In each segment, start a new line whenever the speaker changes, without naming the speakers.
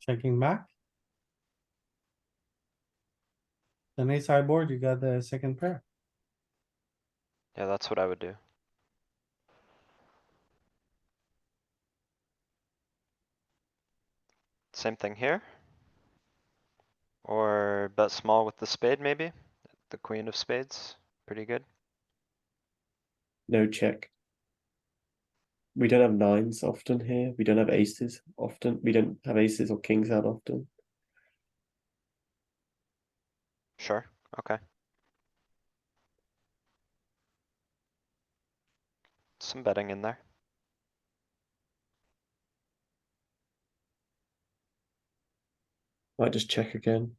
Checking back. Then ace high board, you got the second pair.
Yeah, that's what I would do. Same thing here. Or bet small with the spade maybe, the queen of spades, pretty good.
No check. We don't have nines often here. We don't have aces often. We don't have aces or kings out often.
Sure, okay. Some betting in there.
Might just check again.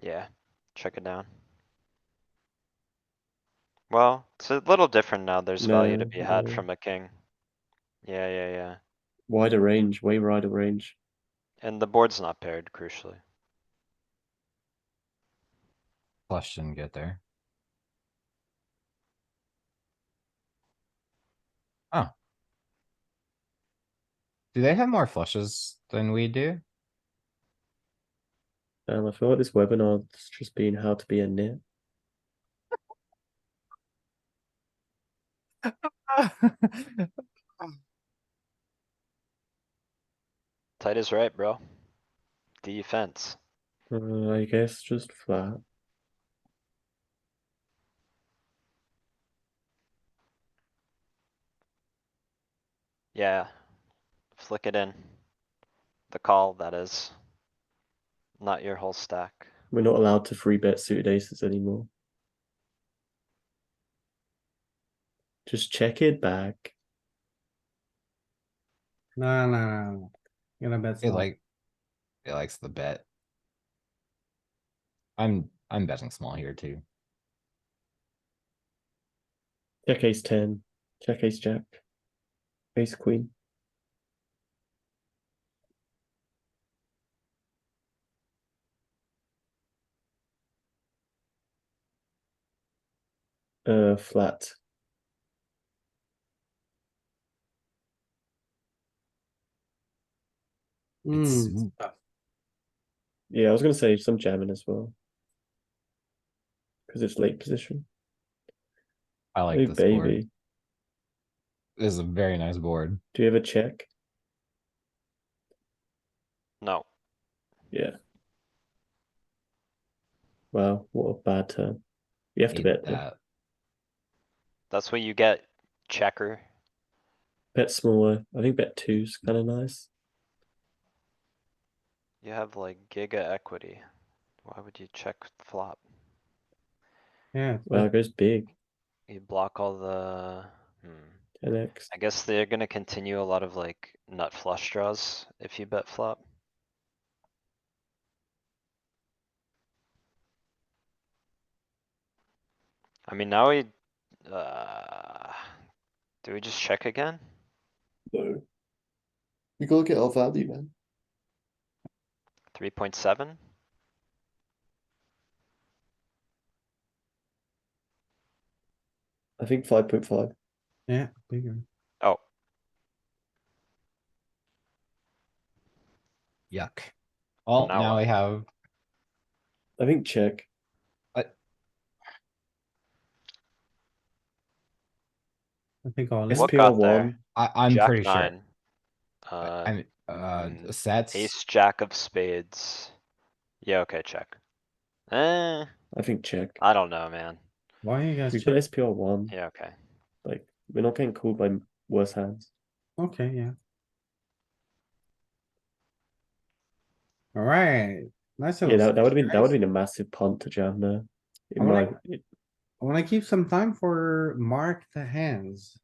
Yeah, check it down. Well, it's a little different now. There's value to
No,
be had
no.
from a king. Yeah, yeah, yeah.
Wider range, way wider range.
And the board's not paired crucially.
Flush didn't get there. Oh. Do they have more flushes than we do?
Um, I feel like this webinar has just been how to be a nit.
Tight is right, bro. Defense.
Uh, I guess just flat.
Yeah. Flick it in. The call, that is. Not your whole stack.
We're not allowed to free bet suited aces anymore. Just check it back.
No, no, no, no. Gonna bet
He
small.
like. He likes the bet. I'm, I'm betting small here too.
Check ace ten. Check ace jack. Ace queen. Uh, flat.
It's,
Hmm,
Yeah, I was gonna say some jamming as well. Because it's late position.
I
hey,
like this board.
baby,
This is a very nice board.
do you have a check?
No,
Yeah. Wow, what a bad turn. You have to
Hate
bet. though.
that.
that's what you get. Checker.
Bet smaller. I think bet two's kind of nice.
You have like giga equity. Why would you check flop?
Yeah, it's
Wow,
bet-
it goes big.
You block all the, hmm.
10x.
I guess they're gonna continue a lot of like nut flush draws if you bet flop. I mean, now we, uh, do we just check again?
No. You gotta get our value, man.
Three point seven?
I think 5.5.
yeah, bigger.
Oh,
Yuck. Well,
now
now
what?
we have,
I think check.
I think all in.
what
SPR
got there?
one,
I, I'm
Jack
pretty sure.
nine.
I-
Uh,
I'm, uh,
mm,
sets.
ace, jack of spades. Yeah, okay, check. Eh,
I think check.
I don't know, man.
Why are you guys?
We put
check-
SPR one.
Yeah, okay.
Like, we're not getting called by m- worse hands.
Okay, yeah. Alright, nice.
Yeah,
little
that, that would have been that
surprise.
would have been a massive punt to jam there. It
I wanna-
might. it-
I wanna keep some time for mark the hands.